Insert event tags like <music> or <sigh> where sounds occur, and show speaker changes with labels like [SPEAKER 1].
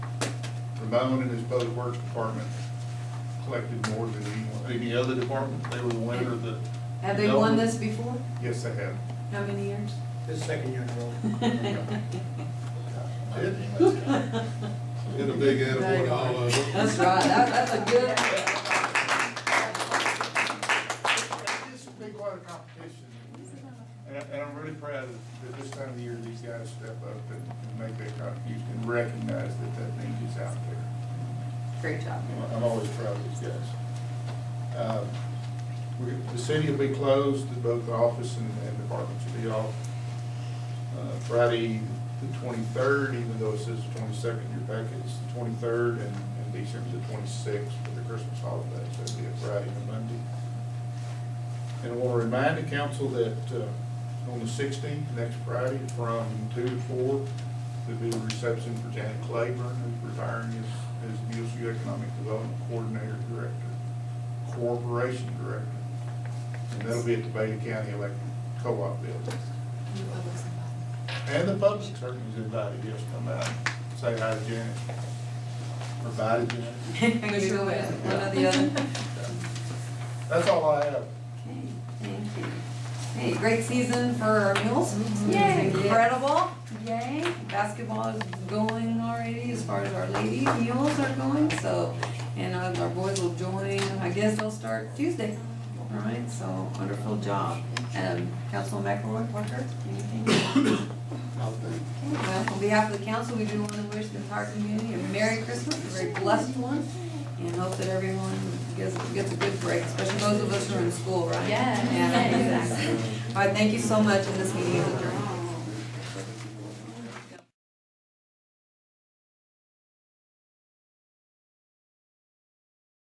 [SPEAKER 1] Bone and his Public Works Department collected more than any, any other department. They were the winner of the.
[SPEAKER 2] Have they won this before?
[SPEAKER 1] Yes, they have.
[SPEAKER 2] How many years?
[SPEAKER 1] <laughs>
[SPEAKER 3] This second year in a row.
[SPEAKER 2] <laughs>
[SPEAKER 1] Get a big attaboy to all of them.
[SPEAKER 2] That's right, that, that's a good.
[SPEAKER 1] This has been quite a competition. And, I- and I'm really proud that this time of the year, these guys step up and and make their contribution and recognize that that need is out there.
[SPEAKER 2] Great job.
[SPEAKER 1] I'm- I'm
[SPEAKER 2] <laughs>
[SPEAKER 1] always proud of these guys. Uh, we- The city will be closed, both the office and, and departments will be off. Uh, Friday, the twenty-third, even though it says the twenty-second, your packet is the twenty-third, and, and December the twenty-sixth for the Christmas holiday, so it'll be a Friday and a Monday. And I want to remind the council that uh, on the sixteenth, next Friday, from two to four, there'll be a reception for Janet Claiborne, who's retiring as, as BSU Economic Development Coordinator Director, Corporation Director. And that'll be at the Bay County Electric Co-op Building. And the public certainly is invited, yes, come out, say hi to Janet. Or bye to Janet.
[SPEAKER 2] Good or bad, one or the other.
[SPEAKER 1] That's all I have.
[SPEAKER 2] Okay, thank you. Hey, great season for our mules.
[SPEAKER 4] Yay.
[SPEAKER 2] It's Incredible. Yay. Basketball is going already as far as our lady mules are going, so, and uh, our boys will join, I guess they'll start Tuesday. All right, so wonderful job. Um, Councilman McElroy, Parker, anything? Okay, Well, on behalf of the council, we do want to wish the entire community a Merry Christmas, a very blessed one, and hope that everyone gets, gets a good break, especially those of us who are in school, right?
[SPEAKER 4] Yeah.
[SPEAKER 2] Yeah, exactly. All right, thank you so much, and this meeting is adjourned.